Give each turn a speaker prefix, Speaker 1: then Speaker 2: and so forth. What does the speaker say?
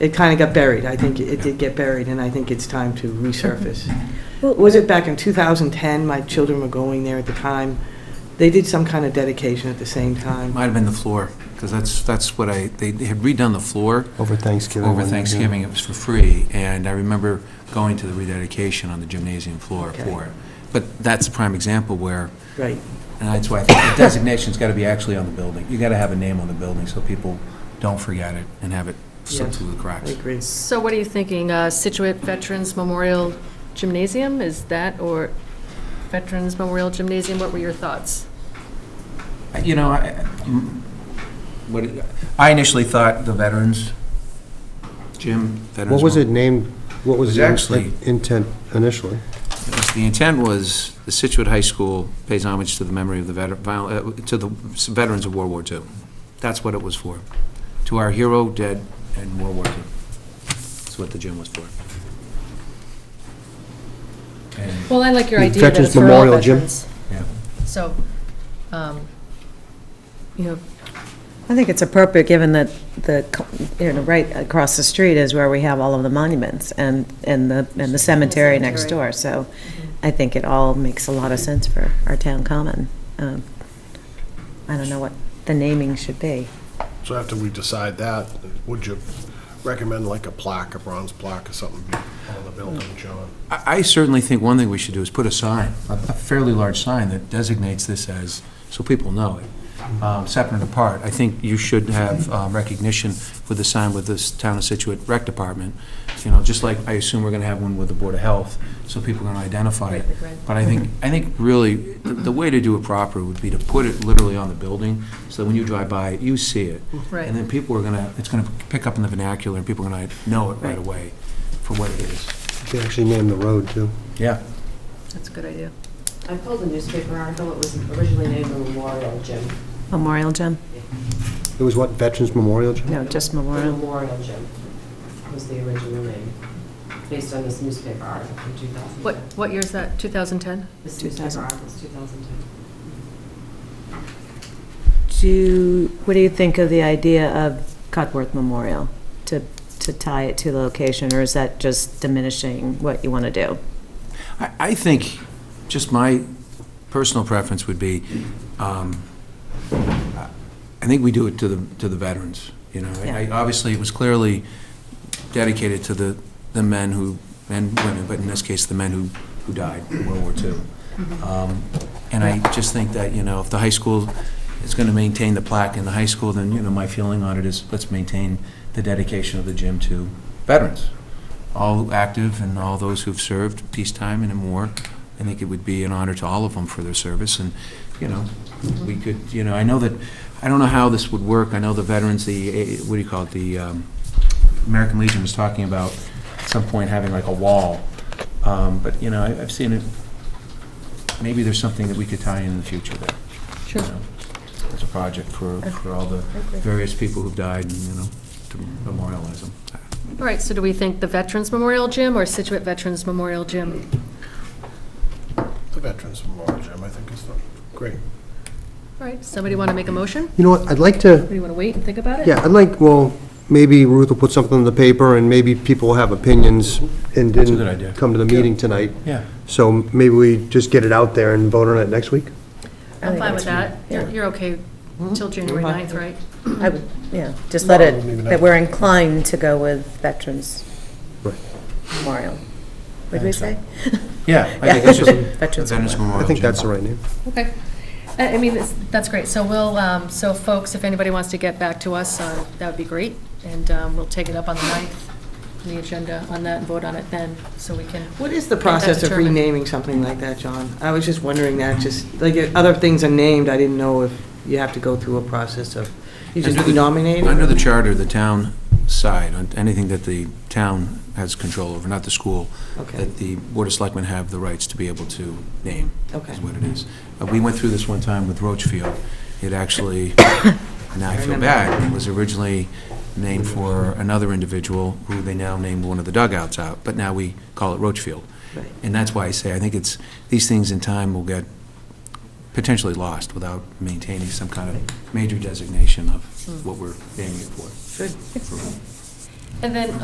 Speaker 1: It kind of got buried. I think it did get buried, and I think it's time to resurface.
Speaker 2: Well-
Speaker 1: Was it back in 2010? My children were going there at the time. They did some kind of dedication at the same time.
Speaker 3: Might have been the floor, because that's, that's what I, they had redone the floor
Speaker 4: Over Thanksgiving.
Speaker 3: over
Speaker 4: when they do.
Speaker 3: Thanksgiving, it was for free, and I remember going to the rededication on the gymnasium floor
Speaker 1: Okay.
Speaker 3: for it. But that's a prime example where,
Speaker 1: Right.
Speaker 3: and that's why I think the designation's got to be actually on the building. You got to have a name on the building so people don't forget it and have it slip
Speaker 1: Yes,
Speaker 3: through the
Speaker 1: I
Speaker 3: cracks.
Speaker 1: agree.
Speaker 2: So what are you thinking, uh, Situate Veterans Memorial Gymnasium, is that, or Veterans Memorial Gymnasium, what were your thoughts?
Speaker 3: You know, I, mm, what, I initially thought the veterans, Jim, veterans.
Speaker 4: What was
Speaker 3: Memorial-
Speaker 4: it named, what was
Speaker 3: It was
Speaker 4: the
Speaker 3: actually-
Speaker 4: in- intent initially?
Speaker 3: The intent was, the Situate High School pays homage to the memory of the veter- viol- uh to the veterans of World War II. That's what it was for, to our hero dead in World War II. That's what the gym was for. And,
Speaker 2: Well, I like your
Speaker 4: The
Speaker 2: idea that
Speaker 4: Veterans
Speaker 2: it's for all
Speaker 4: Memorial Gym.
Speaker 2: veterans.
Speaker 3: yeah.
Speaker 2: So, um, you know,
Speaker 5: I think it's appropriate, given that the, you know, right across the street is where we have all of the monuments and, and the, and the cemetery next
Speaker 2: Cemetery.
Speaker 5: door, so I think it all makes a lot of sense for our town common. Um, I don't know what the naming should be.
Speaker 6: So after we decide that, would you recommend like a plaque, a bronze plaque or something be on the building, John?
Speaker 3: I I certainly think one thing we should do is put a sign, a a fairly large sign that designates this as, so people know it, um, separate and apart. I think you should have um, recognition with the sign with this Town of Situate Rec Department, you know, just like I assume we're going to have one with the Board of Health, so people can identify it.
Speaker 2: Right, right, right.
Speaker 3: But I think, I think really, the the way to do it proper would be to put it literally on the building, so that when you drive by, it, you see it.
Speaker 2: Right.
Speaker 3: And then people are going to, it's going to pick up in the vernacular, and people are going to know it right
Speaker 2: Right.
Speaker 3: away for what it is.
Speaker 4: They actually named the road, too.
Speaker 3: Yeah.
Speaker 2: that's a good idea.
Speaker 7: I pulled a newspaper article, it was originally named the Memorial Gym.
Speaker 5: Memorial Gym?
Speaker 4: It was what, Veterans Memorial, Jim?
Speaker 5: No, just
Speaker 7: The
Speaker 5: Memorial.
Speaker 7: Memorial Gym was the original name, based on this newspaper article from 2010.
Speaker 2: What, what year is that, 2010?
Speaker 7: This newspaper article is 2010.
Speaker 5: Do, what do you think of the idea of Cudworth Memorial, to, to tie it to the location, or is that just diminishing what you want to do?
Speaker 3: I, I think, just my personal preference would be, um, I think we do it to the, to the veterans, you know? I- I- Obviously, it was clearly dedicated to the, the men who, and women, but in this case, the men who, who died in World War II. Um, And I just think that, you know, if the high school is going to maintain the plaque in the high school, then, you know, my feeling on it is, let's maintain the dedication of the gym to veterans, all active and all those who've served peacetime and in war. I think it would be an honor to all of them for their service, and, you know, we could, you know, I know that, I don't know how this would work, I know the veterans, the, eh, what do you call it, the um, American Legion was talking about at some point having like a wall, Um, but, you know, I- I've seen it, maybe there's something that we could tie in in the future there. you
Speaker 2: Sure.
Speaker 3: know, As a project for, for all the various people who've died, and, you know, to memorialize them.
Speaker 2: All right, so do we think the Veterans Memorial Gym or Situate Veterans Memorial Gym?
Speaker 6: The Veterans Memorial Gym, I think is the, great.
Speaker 2: All right, somebody want to make a motion?
Speaker 4: You know what, I'd like to,
Speaker 2: Or do you want to wait and think about it?
Speaker 4: yeah, I'd like, well, maybe Ruth will put something in the paper, and maybe people will have opinions and
Speaker 3: That's a good idea.
Speaker 4: didn't come to the meeting tonight.
Speaker 3: Yeah.
Speaker 4: So maybe we just get it out there and vote on it next week?
Speaker 2: I'm fine with that. You're you're okay
Speaker 4: Hmm?
Speaker 2: till January
Speaker 1: Mhm.
Speaker 2: 9th, right?
Speaker 5: I would, yeah, just let
Speaker 6: No, leave it
Speaker 5: it, that
Speaker 6: out.
Speaker 5: we're inclined to go with Veterans
Speaker 4: Right.
Speaker 5: Memorial. Would we say?
Speaker 3: Yeah. I
Speaker 5: Yeah.
Speaker 3: think that's just-
Speaker 5: Veterans
Speaker 3: Veterans
Speaker 4: I
Speaker 3: Memorial
Speaker 4: think
Speaker 3: Gym.
Speaker 4: that's the right name.
Speaker 2: Okay. Uh, I I mean, it's- that's great. So we'll, um, so folks, if anybody wants to get back to us, uh, that would be great. And um, we'll take it up on the 9th, the agenda on that, and vote on it then, so we can.
Speaker 1: What is the
Speaker 2: get that
Speaker 1: process of
Speaker 2: determined.
Speaker 1: renaming something like that, John? I was just wondering that, just, like, if other things are named, I didn't know if you have to go through a process of, you just
Speaker 3: Under the-
Speaker 1: renominate? it?
Speaker 3: Under the charter, the town side, on anything that the town has control over, not the school,
Speaker 1: Okay,
Speaker 3: that the Board of Selectmen have the rights to be able to name,
Speaker 1: okay.
Speaker 3: is what it is. Uh, We went through this one time with Roachfield. It actually, now I feel
Speaker 1: remember.
Speaker 3: bad, it was originally named for another individual who they now named one of the dugouts out, but now we call it Roachfield.
Speaker 1: Right.
Speaker 3: And that's why I say, I think it's, these things in time will get potentially lost without maintaining some kind of major designation of what we're aiming for.
Speaker 1: Good.
Speaker 2: And then